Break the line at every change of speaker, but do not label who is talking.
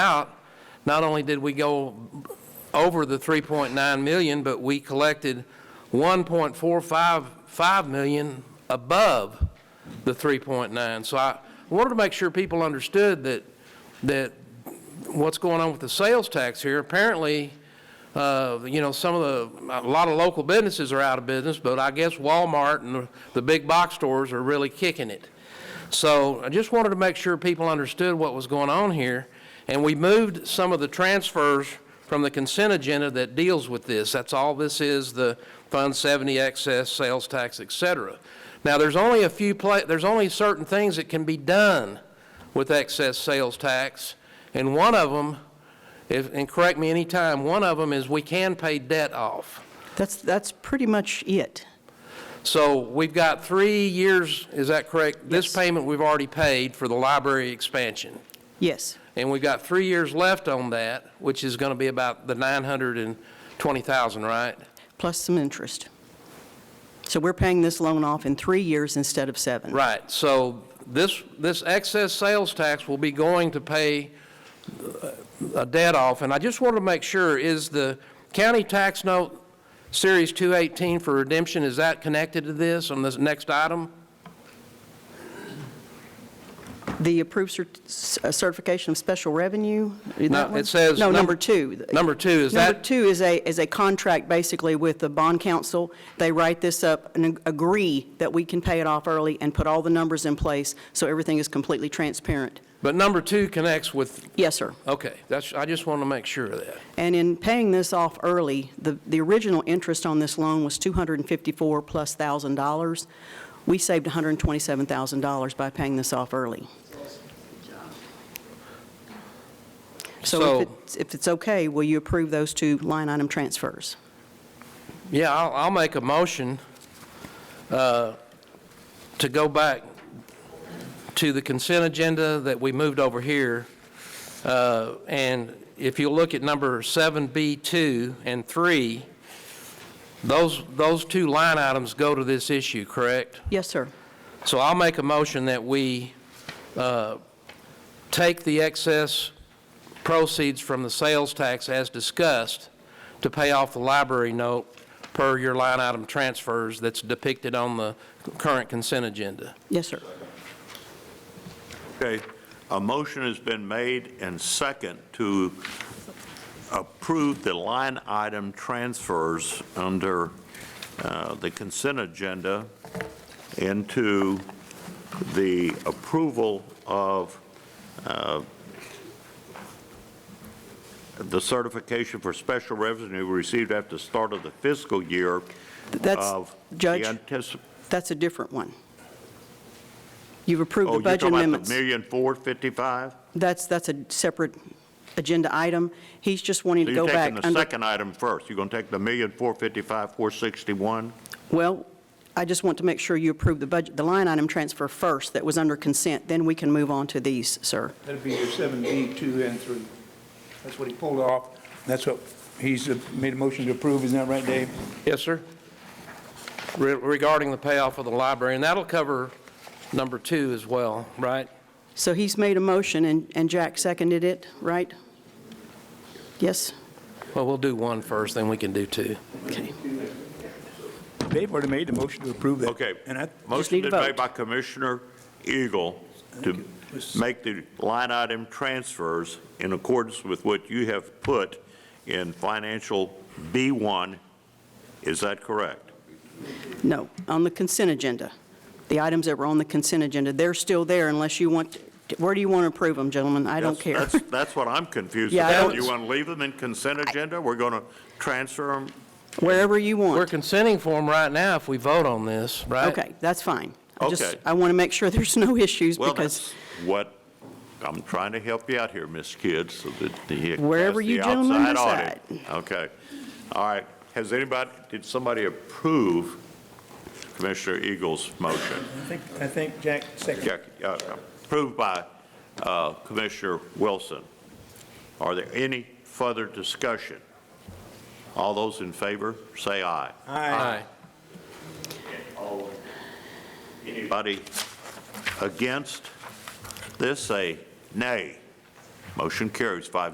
out, not only did we go over the 3.9 million, but we collected 1.455 million above the 3.9. So I wanted to make sure people understood that, that what's going on with the sales tax here, apparently, uh, you know, some of the, a lot of local businesses are out of business, but I guess Walmart and the- the big box stores are really kicking it. So I just wanted to make sure people understood what was going on here, and we moved some of the transfers from the consent agenda that deals with this. That's all this is, the Fund 70 excess, sales tax, et cetera. Now, there's only a few, pla- there's only certain things that can be done with excess sales tax, and one of them, if, and correct me any time, one of them is we can pay debt off.
That's, that's pretty much it.
So we've got three years, is that correct? This
Yes.
payment we've already paid for the library expansion.
Yes,
And we've got three years left on that, which is going to be about the 920,000, right?
plus some interest. So we're paying this loan off in three years instead of seven.
Right, so this, this excess sales tax will be going to pay uh, a debt off. And I just wanted to make sure, is the county tax note Series 218 for redemption, is that connected to this on this next item?
The approved cer- uh, certification of special revenue? is
No,
that one?
it says
No,
num-
number two.
Number two, is
Number
that-
two is a, is a contract basically with the bond council. They write this up and ag- agree that we can pay it off early and put all the numbers in place so everything is completely transparent.
But number two connects with,
Yes, sir.
okay, that's, I just wanted to make sure of that.
And in paying this off early, the, the original interest on this loan was 254 plus thousand dollars. We saved $127,000 by paying this off early. So
So-
if it's, if it's okay, will you approve those two line item transfers?
Yeah, I'll, I'll make a motion uh, to go back to the consent agenda that we moved over here. Uh, And if you look at number 7B2 and 3, those, those two line items go to this issue, correct?
Yes, sir.
So I'll make a motion that we uh, take the excess proceeds from the sales tax as discussed to pay off the library note per your line item transfers that's depicted on the current consent agenda.
Yes, sir.
Okay, a motion has been made and second to approve the line item transfers under uh, the consent agenda into the approval of uh, the certification for special revenue received after the start of the fiscal year
That's,
of the
Judge,
anticip-
that's a different one. You've
Oh,
approved the
you're
budget
talking about
amendments.
the million four fifty-five?
That's, that's a separate agenda item. He's just wanting
So
to
you're
go back
taking the
under
second item first. You're going to take the million four fifty-five, four sixty-one?
Well, I just want to make sure you approve the budget, the line item transfer first that was under consent, then we can move on to these, sir.
That'd be your seven B, two and three. That's what he pulled off. That's what he's uh, made a motion to approve, isn't that right, Dave?
Yes, sir? Re- Regarding the payoff of the library, and that'll cover number two as well, right?
So he's made a motion, and and Jack seconded it, right? Yes?
Well, we'll do one first, then we can do two.
Okay.
Dave already made the motion to approve that.
Okay.
And I,
Motion
need a
been made
vote.
by Commissioner Eagle to make the line item transfers in accordance with what you have put in financial B one. Is that correct?
No, on the consent agenda. The items that were on the consent agenda, they're still there unless you want, where do you want to approve them, gentlemen? I don't
That's-
care.
That's, that's what I'm confused
Yeah, I
about.
don't-
You want to leave them in consent agenda? We're going to transfer them?
Wherever you
We're
want.
consenting for them right now if we vote on this, right?
Okay, that's fine. I just,
Okay.
I want to make sure there's no issues
Well,
because
that's what, I'm trying to help you out here, Miss Kidd, so that the.
Wherever
that's
you
the
gentlemen
outside audit. Okay. All right. Has anybody, did somebody approve Commissioner Eagle's motion?
I think, I think Jack seconded.
Jack, uh, Approved by uh, Commissioner Wilson. Are there any further discussion? All those in favor, say aye.
Aye.
Anybody against this, say nay. Motion carries five